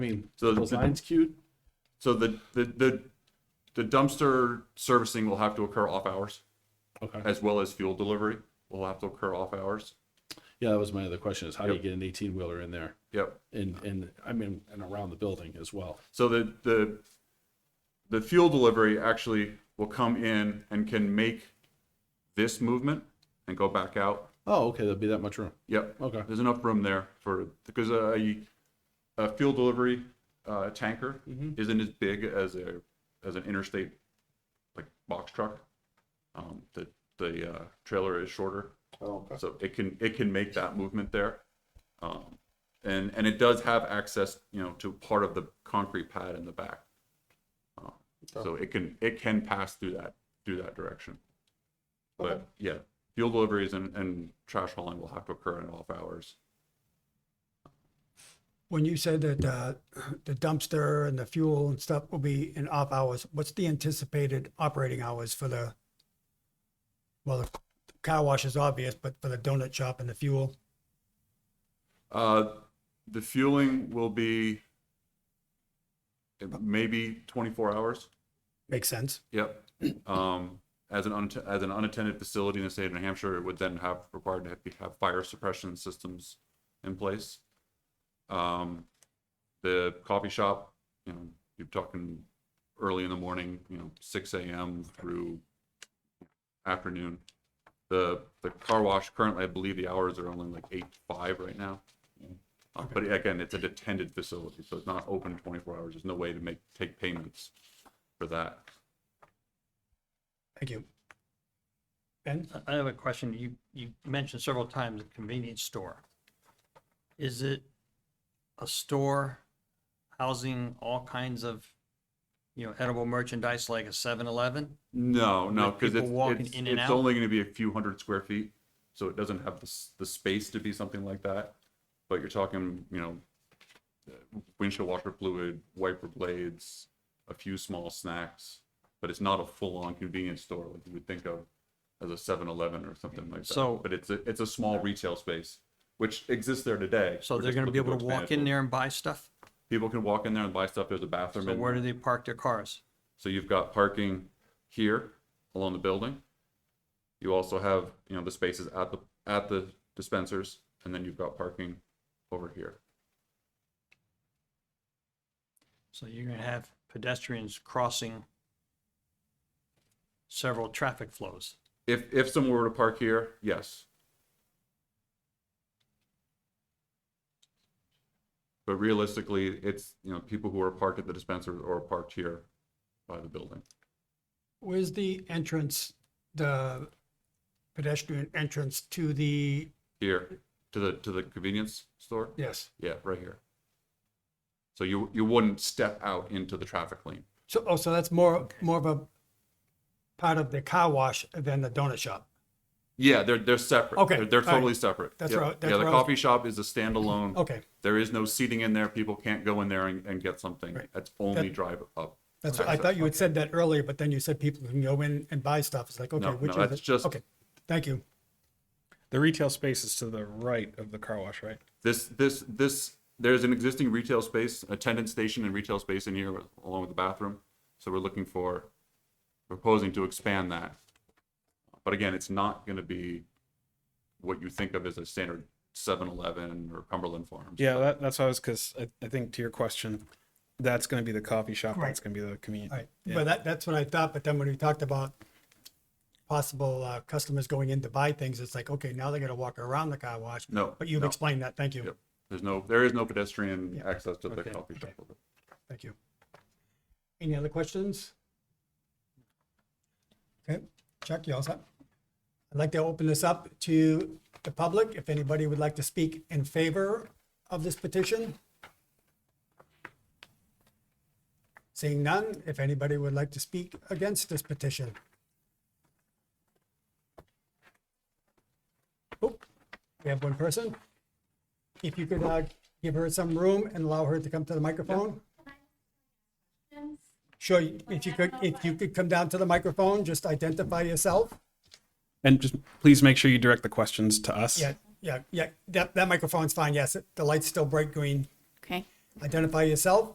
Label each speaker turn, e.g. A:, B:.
A: I mean,
B: So
A: those
B: the-
A: lines queued?
B: So the, the, the, the dumpster servicing will have to occur off hours
A: Okay.
B: as well as fuel delivery will have to occur off hours.
A: Yeah, that was my other question is how do you
B: Yep.
A: get an eighteen wheeler in there
B: Yep.
A: and, and I mean, and around the building as well?
B: So the, the, the fuel delivery actually will come in and can make this movement and go back out.
A: Oh, okay, there'll be that much room.
B: Yep.
A: Okay.
B: There's enough room there for, because a, a fuel delivery, uh, tanker
A: Mm-hmm.
B: isn't as big as a, as an interstate, like box truck. Um, the, the, uh, trailer is shorter.
C: Oh, okay.
B: So it can, it can make that movement there. Um, and, and it does have access, you know, to part of the concrete pad in the back. Uh, So it can, it can pass through that, through that direction.
C: Okay.
B: But yeah, fuel deliveries and, and trash hauling will have to occur in off hours.
D: When you said that uh, the dumpster and the fuel and stuff will be in off hours, what's the anticipated operating hours for the, well, the car wash is obvious, but for the donut shop and the fuel?
B: Uh, the fueling will be maybe twenty-four hours.
D: Makes sense.
B: Yep. Um, as an, unatt- as an unattended facility in the state of New Hampshire, it would then have required to have, have fire suppression systems in place. Um, the coffee shop, you know, you're talking early in the morning, you know, six AM through afternoon. The, the car wash currently, I believe the hours are only like eight, to five right now. Uh, but again, it's an attended facility, so it's not open twenty-four hours. There's no way to make, take payments for that.
D: Thank you. Ben,
E: I- I have a question. You, you mentioned several times a convenience store. Is it a store housing all kinds of, you know, edible merchandise like a 7-Eleven?
B: No, no,
E: With
B: because
E: people
B: it's,
E: walking
B: it's,
E: in and
B: it's
E: out?
B: only going to be a few hundred square feet, so it doesn't have the, s- the space to be something like that. But you're talking, you know, windshield washer fluid, wiper blades, a few small snacks, but it's not a full-on convenience store like you would think of as a 7-Eleven or something like that.
E: So-
B: but it's a it's a small retail space which exists there today.
E: So
B: We're
E: they're
B: just
E: going to be
B: looking
E: able to
B: expand
E: walk
B: it.
E: in there and buy stuff?
B: People can walk in there and buy stuff. There's a bathroom.
E: So
B: in
E: where do they park their cars?
B: so you've got parking here along the building. You also have, you know, the spaces at the, at the dispensers, and then you've got parking over here.
E: So you're going to have pedestrians crossing several traffic flows.
B: If, if someone were to park here, yes. But realistically, it's, you know, people who are parked at the dispensers or parked here by the building.
D: where's the entrance, the pedestrian entrance to the,
B: Here, to the, to the convenience store?
D: yes.
B: Yeah, right here. So you, you wouldn't step out into the traffic lane.
D: So, oh, so that's more, more of a part of the car wash than the donut shop.
B: Yeah, they're they're separate.
D: Okay,
B: they're, they're
D: all right.
B: totally separate.
D: That's
B: yeah.
D: where I- that's
B: yeah, the
D: where I was- Oh.
B: coffee shop is a standalone.
D: Okay,
B: There is no seating in there. People can't go in there and, and get something.
D: Right.
B: That's only
D: That-
B: drive up.
D: that's, what- I thought you had said that earlier, but then you said people can go in and buy stuff. It's like, okay,
B: No,
D: which
B: no,
D: is
B: that's
D: it?
B: just-
D: Okay, thank you.
F: The retail space is to the right of the car wash, right?
B: This this this there's an existing retail space, attendance station, and retail space in here with- along with the bathroom. So we're looking for proposing to expand that. But again, it's not going to be what you think of as a standard 7-Eleven or Cumberland Farms.
F: Yeah, that, that's what I was, because I, I think to your question, that's going to be the coffee shop.
D: Right.
F: That's going to be the convenience.
D: All right, but that, that's what I thought, but then when we talked about possible uh, customers going in to buy things, it's like, okay, now they're gonna walk around the car wash.
B: No,
D: But you've
B: no.
D: explained that. Thank you.
B: Yep. There's no there is no pedestrian
D: Yeah.
B: access to the
F: Okay.
B: coffee shop.
D: Thank you. Any other questions? Okay, Chuck, you all set? I'd like to open this up to the public, if anybody would like to speak in favor of this petition. Seeing none, if anybody would like to speak against this petition. Oh, We have one person. If you could uh, give her some room and allow her to come to the microphone. Sure, if you could, if you could come down to the microphone, just identify yourself.
F: And just please make sure you direct the questions to us.
D: Yeah, yeah, yeah, that, that microphone's fine, yes, the light's still bright green.
G: Okay.
D: identify yourself